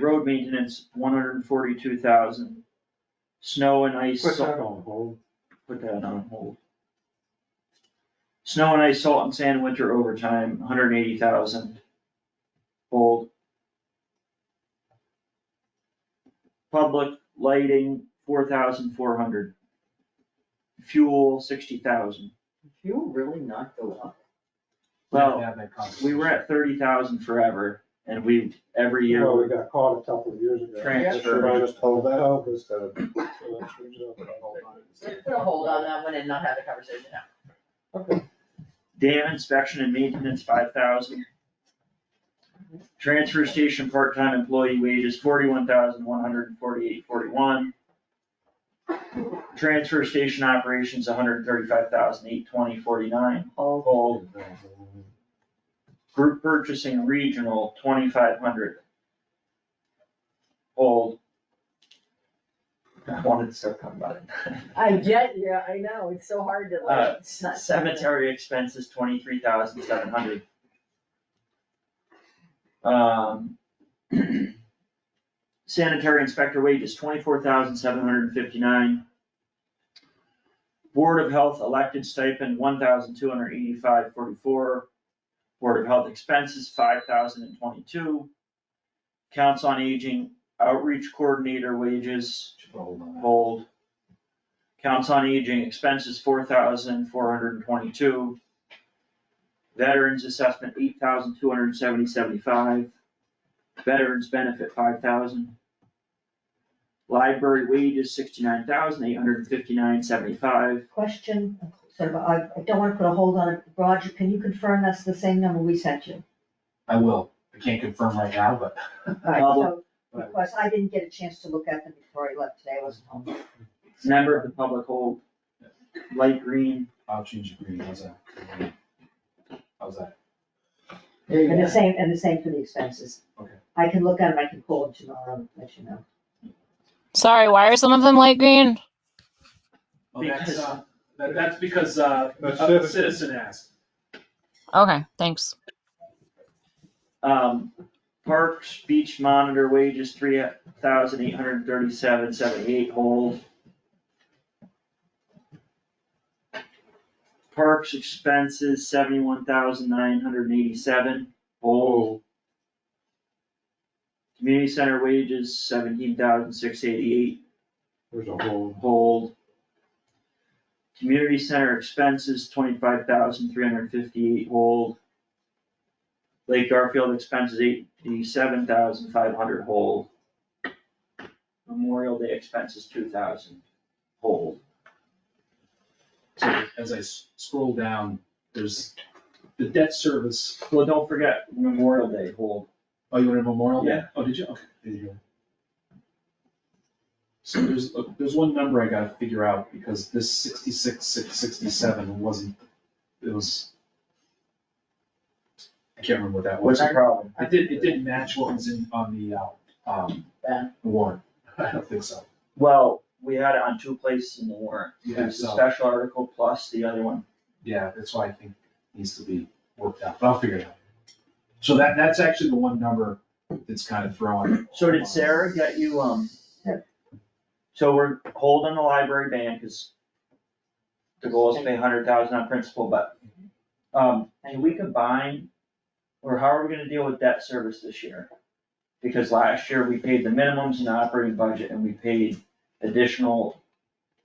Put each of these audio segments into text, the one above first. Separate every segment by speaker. Speaker 1: Road maintenance, one hundred and forty-two thousand. Snow and ice.
Speaker 2: Put
Speaker 1: salt-
Speaker 2: that on hold.
Speaker 1: Put that on hold. Snow and ice, salt and sand, winter overtime, hundred and eighty thousand. Hold. Public lighting, four thousand four hundred. Fuel, sixty thousand.
Speaker 3: Fuel really not go up?
Speaker 1: Well,
Speaker 4: have that
Speaker 1: we were at thirty thousand forever and we, every year.
Speaker 2: Well, we got caught a couple of years ago.
Speaker 1: Transfer.
Speaker 2: Should I just hold that up instead of? so let's change it up and hold on.
Speaker 3: Put a hold on that one and not have the conversation now.
Speaker 1: Dam inspection and maintenance, five thousand. Transfer station part-time employee wages, forty-one thousand, one hundred and forty-eight, forty-one. Transfer station operations, 135,820.49. hundred and thirty-five thousand, eight twenty, forty-nine. All group purchasing regional, twenty-five hundred. Old. I wanted to start talking about it.
Speaker 3: I get you, I know, it's so hard to
Speaker 1: Uh,
Speaker 3: like, it's not.
Speaker 1: Cemetery expenses, twenty-three thousand seven hundred. Um. Sanitary inspector wages, twenty-four thousand seven hundred and fifty-nine. Board of Health elected stipend, one thousand two hundred eighty-five forty-four. Board of Health expenses, five thousand and twenty-two. Counts on Aging outreach coordinator wages, hold. Counts on Aging expenses, four thousand four hundred and twenty-two. Veterans assessment, eight thousand two hundred and seventy seventy-five. Veterans benefit, five thousand. Library wages, sixty-nine thousand eight hundred and fifty-nine seventy-five.
Speaker 5: Question, sort of, I, I don't wanna put a hold on it, Roger, can you confirm that's the same number we sent you?
Speaker 4: I will, I can't confirm right now, but.
Speaker 5: Alright, so,
Speaker 4: Right.
Speaker 5: because I didn't get a chance to look at them before I left today, I wasn't home.
Speaker 1: Member of the public hold. Light green,
Speaker 4: I'll change the green, how's that? How's that?
Speaker 2: There you
Speaker 5: And the
Speaker 2: go.
Speaker 5: same, and the same for the expenses.
Speaker 4: Okay.
Speaker 5: I can look at them, I can call them tomorrow and let you know.
Speaker 6: Sorry, why are some of them light green?
Speaker 4: Well, that's,
Speaker 1: Because-
Speaker 4: uh, that, that's because, uh,
Speaker 2: That's
Speaker 4: a
Speaker 2: citizen.
Speaker 4: citizen asked.
Speaker 6: Okay, thanks.
Speaker 1: um, parks, beach monitor wages, three thousand eight hundred and thirty-seven seventy-eight hold. Parks expenses, seventy-one thousand nine hundred and eighty-seven, hold. Community center wages, seventeen thousand six eighty-eight,
Speaker 2: There's a hold.
Speaker 1: hold. Community center expenses, twenty-five thousand three hundred and fifty-eight, hold. Lake Garfield expenses, eighty-seven thousand five hundred, hold. Memorial Day expenses, two thousand, hold.
Speaker 4: So uh, as I s- scroll down, there's the debt service,
Speaker 1: Well, don't forget Memorial Day, hold.
Speaker 4: oh, you wanted Memorial Day?
Speaker 1: Yeah.
Speaker 4: Oh, did you? Okay, there you go. So there's, uh, there's one number I gotta figure out, because this sixty-six, six sixty-seven wasn't, it was. I can't remember what that was.
Speaker 1: What's the problem?
Speaker 4: It did, it didn't match what was in, on the, uh, um,
Speaker 3: Yeah.
Speaker 4: warrant, I don't think so.
Speaker 1: Well, we had it on two places in the warrant.
Speaker 4: Yeah,
Speaker 1: There's the
Speaker 4: so-
Speaker 1: special article plus the other one.
Speaker 4: Yeah, that's why I think it needs to be worked out, but I'll figure it out. So that, that's actually the one number that's kind of thrown.
Speaker 1: So did Sarah get you, um?
Speaker 5: Yeah.
Speaker 1: So we're holding the library ban, cause the goal is to pay hundred thousand on principal, but, um, can we combine? Or how are we gonna deal with debt service this year? Because last year we paid the minimums in the operating budget and we paid additional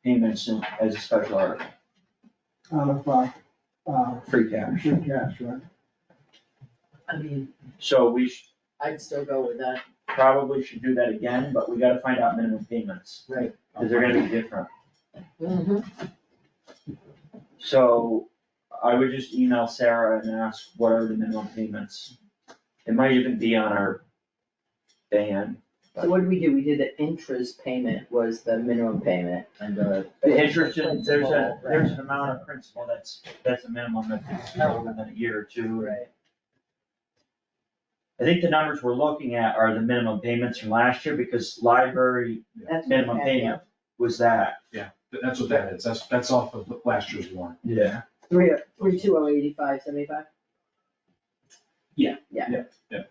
Speaker 1: payments in- as a special article,
Speaker 2: Out of, uh, uh,
Speaker 1: free cash.
Speaker 2: free cash, right?
Speaker 3: I mean,
Speaker 1: So we should
Speaker 3: I'd still go with that.
Speaker 1: probably should do that again, but we gotta find out minimum payments, cause they're gonna be different.
Speaker 3: Mm-hmm.
Speaker 1: So I would just email Sarah and ask what are the minimum payments? It might even be on our ban.
Speaker 3: So what did we do? We did the interest payment was the minimum payment and the.
Speaker 1: The interest, in- there's a,
Speaker 3: Principal,
Speaker 1: there's an
Speaker 3: right.
Speaker 1: amount of principal that's, that's a minimum that's no more than a year or two.
Speaker 3: Right.
Speaker 1: I think the numbers we're looking at are the minimum payments from last year because library
Speaker 5: That's what we
Speaker 1: minimum
Speaker 5: had, yeah.
Speaker 1: payment was that.
Speaker 4: Th- That's what that is, that's, that's off of last year's warrant.
Speaker 1: Yeah.
Speaker 3: Three, three, two, oh, eighty-five, seventy-five?
Speaker 4: Yeah.
Speaker 3: Yeah.
Speaker 4: Yeah, yeah.